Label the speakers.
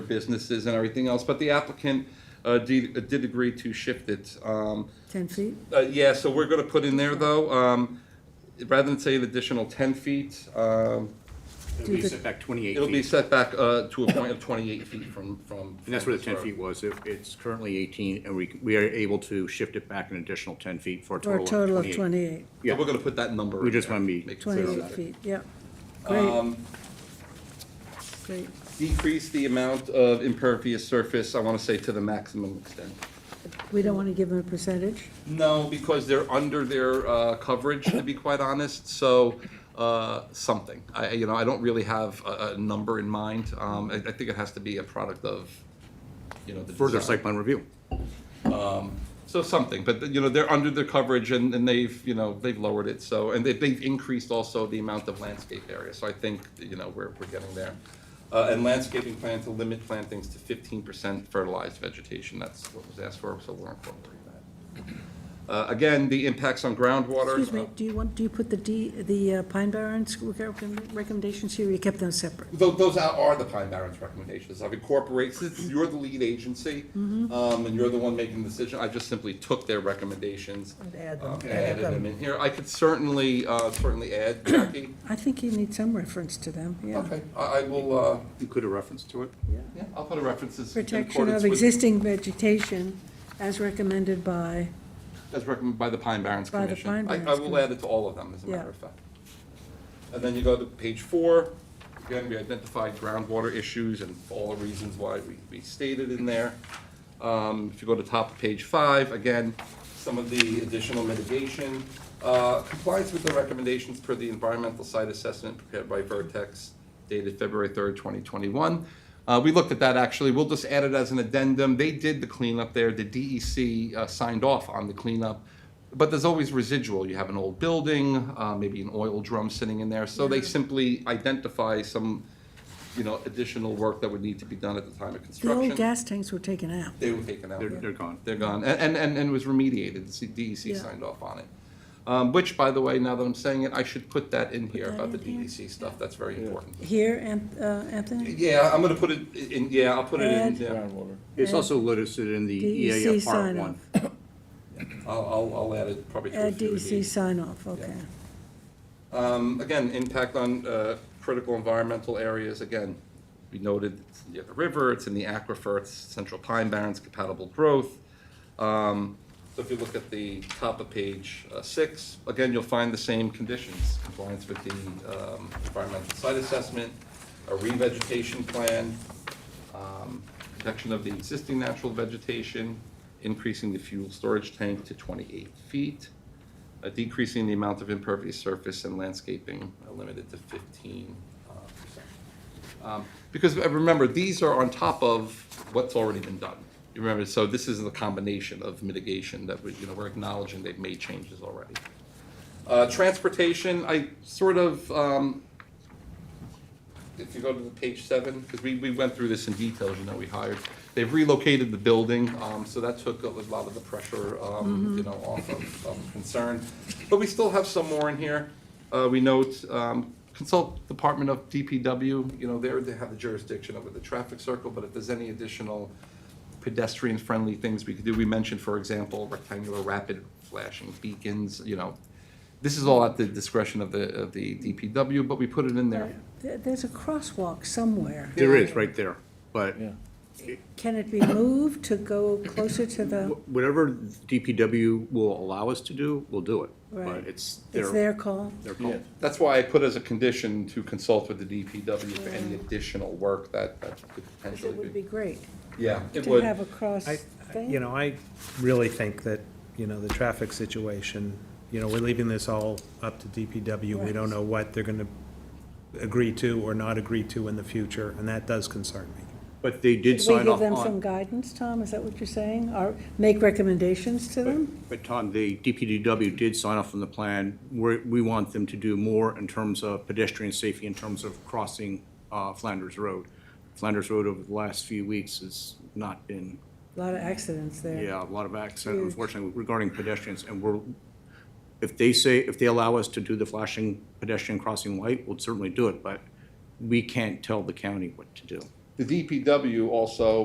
Speaker 1: businesses and everything else, but the applicant uh, did did agree to shift it. Um,
Speaker 2: 10 feet?
Speaker 1: uh, Yeah, so we're going to put in there, though, um, rather than say an additional 10 feet, um,
Speaker 2: Do
Speaker 3: It'll be
Speaker 2: the-
Speaker 3: set back twenty-eight
Speaker 1: it'll be
Speaker 3: feet,
Speaker 1: set back uh, to a point of 28 feet from, from.
Speaker 3: and that's where the
Speaker 1: from
Speaker 3: ten
Speaker 1: road.
Speaker 3: feet was. It- It's currently eighteen, and we, we are able to shift it back an additional ten feet for a
Speaker 2: Or a
Speaker 3: total
Speaker 2: total
Speaker 3: of
Speaker 2: of
Speaker 3: twenty-eight.
Speaker 2: 28,
Speaker 1: So we're going to put that number.
Speaker 3: We
Speaker 1: in
Speaker 3: just
Speaker 1: there,
Speaker 3: wanna be
Speaker 1: make it clear on
Speaker 2: 28
Speaker 1: that. Um,
Speaker 2: feet, yeah. Great, great.
Speaker 1: Decrease the amount of impervious surface, I want to say, to the maximum extent.
Speaker 2: We don't want to give them a percentage?
Speaker 1: No, because they're under their uh, coverage, to be quite honest, so uh, something. I, I- you know, I don't really have a a number in mind. Um, I I think it has to be a product of, you know, the
Speaker 3: Further
Speaker 1: design.
Speaker 3: site plan review.
Speaker 1: So something, but, you know, they're under their coverage and and they've, you know, they've lowered it, so, and they- they've increased also the amount of landscape area. So I think, you know, we're we're getting there. Uh, And landscaping plan to limit plantings to 15% fertilized vegetation, that's what was asked for, so we're incorporating that. Uh, Again, the impacts on groundwater. Uh,
Speaker 2: Excuse me, do you want, do you put the D, the uh, Pine Barrens recommend- recommendations here, or you kept them separate?
Speaker 1: Tho- Those are- are the Pine Barrens recommendations. I've incorporated, since you're the lead agency,
Speaker 2: Mm-hmm.
Speaker 1: um, and you're the one making the decision, I just simply took their recommendations.
Speaker 2: And add them.
Speaker 1: um, and
Speaker 2: Yeah.
Speaker 1: Added them in here. I could certainly, uh, certainly add, Jackie.
Speaker 2: I think you need some reference to them, yeah.
Speaker 1: Okay, I, I will, uh,
Speaker 3: Include a reference to it.
Speaker 1: yeah, I'll put a references in
Speaker 2: Protection of
Speaker 1: accordance with,
Speaker 2: existing vegetation as recommended by,
Speaker 1: as recommended by the Pine Barrens
Speaker 2: By the
Speaker 1: Commission.
Speaker 2: Pine
Speaker 1: I-
Speaker 2: Barrens
Speaker 1: I will
Speaker 2: Commission.
Speaker 1: add it to all of them, as a
Speaker 2: Yeah.
Speaker 1: matter of fact. And then you go to page four. Again, we identified groundwater issues and all the reasons why we, we stated in there. Um, If you go to top of page five, again, some of the additional mitigation. Uh, Compliance with the recommendations per the environmental site assessment prepared by Vertex dated February third, twenty twenty-one. Uh, We looked at that, actually. We'll just add it as an addendum. They did the cleanup there. The DEC uh, signed off on the cleanup. But there's always residual. You have an old building, uh, maybe an oil drum sitting in there. So they simply identify some, you know, additional work that would need to be done at the time of
Speaker 2: the
Speaker 1: construction.
Speaker 2: old gas tanks were taken out.
Speaker 1: They were taken out.
Speaker 3: They're, they're gone.
Speaker 1: They're gone, and, and- and, and it was remediated, the C- DEC
Speaker 2: Yeah.
Speaker 1: signed off on it. Um, which, by the way, now that I'm saying it, I should put that in here
Speaker 2: that
Speaker 1: about the
Speaker 2: in here.
Speaker 1: DEC stuff, that's very important.
Speaker 2: Here, Anth- uh, Anthony?
Speaker 1: Yeah, I'm gonna put it in, yeah, I'll put it in,
Speaker 2: Add-
Speaker 1: yeah,
Speaker 3: It's also listed in the E
Speaker 2: DEC
Speaker 3: EAF part
Speaker 2: E sign
Speaker 3: one.
Speaker 2: off.
Speaker 1: I'll, I'll, I'll add it probably to a
Speaker 2: Add E
Speaker 1: few of
Speaker 2: DEC
Speaker 1: these.
Speaker 2: sign off, okay.
Speaker 1: Um, again, impact on, uh, critical environmental areas, again, we noted, it's near the river, it's in the aquifer, it's central pine barrens, compatible growth. Um, so if you look at the top of page, uh, six, again, you'll find the same conditions, compliance with the, um, environmental site assessment, a revegetation plan, um, protection of the existing natural vegetation, increasing the fuel storage tank to twenty-eight feet, uh, decreasing the amount of impervious surface and landscaping uh, limited to fifteen uh, percent. Um, Because uh, remember, these are on top of what's already been done. You remember, so this is the combination of mitigation that we, you know, we're acknowledging they've made changes already. Uh, Transportation, I sort of, um, if you go to the page seven, because we, we went through this in detail, as you know, we hired. They've relocated the building, um, so that took a lot of the pressure, um, you know, off of, of concern. But we still have some more in here. Uh, we note, um, consult Department of DPW, you know, they're, they have the jurisdiction over the traffic circle, but if there's any additional pedestrian-friendly things we could do, we mentioned, for example, rectangular rapid flashing beacons, you know. This is all at the discretion of the, of the DPW, but we put it in there.
Speaker 2: There- There's a crosswalk somewhere.
Speaker 3: There is, right there. But
Speaker 2: Can it be moved to go closer to the,
Speaker 3: wh- whatever DPW will allow us to do, we'll do it.
Speaker 2: Right.
Speaker 3: But it's
Speaker 2: it's
Speaker 3: their,
Speaker 2: their call?
Speaker 3: their call.
Speaker 1: That's why I put as a condition to consult with the DPW for any additional work that, that could
Speaker 2: Because it
Speaker 1: potentially
Speaker 2: would
Speaker 1: be.
Speaker 2: be great
Speaker 1: Yeah, it
Speaker 2: to
Speaker 1: would.
Speaker 2: have a cross
Speaker 4: I,
Speaker 2: thing.
Speaker 4: you know, I really think that, you know, the traffic situation, you know, we're leaving this all up to DPW. We don't know what they're gonna agree to or not agree to in the future, and that does concern me.
Speaker 3: But they did
Speaker 2: Could we
Speaker 3: sign
Speaker 2: give
Speaker 3: off
Speaker 2: them some
Speaker 3: on,
Speaker 2: guidance, Tom? Is that what you're saying? Or make recommendations to them?
Speaker 3: but Tom, the DPW did sign off on the plan. We're, we want them to do more in terms of pedestrian safety, in terms of crossing, uh, Flanders Road. Flanders Road over the last few weeks has not been
Speaker 2: A lot of accidents there.
Speaker 3: Yeah, a lot of accident, unfortunately, regarding pedestrians, and we're, if they say, if they allow us to do the flashing pedestrian crossing light, we'll certainly do it, but we can't tell the county what to do.
Speaker 1: The DPW also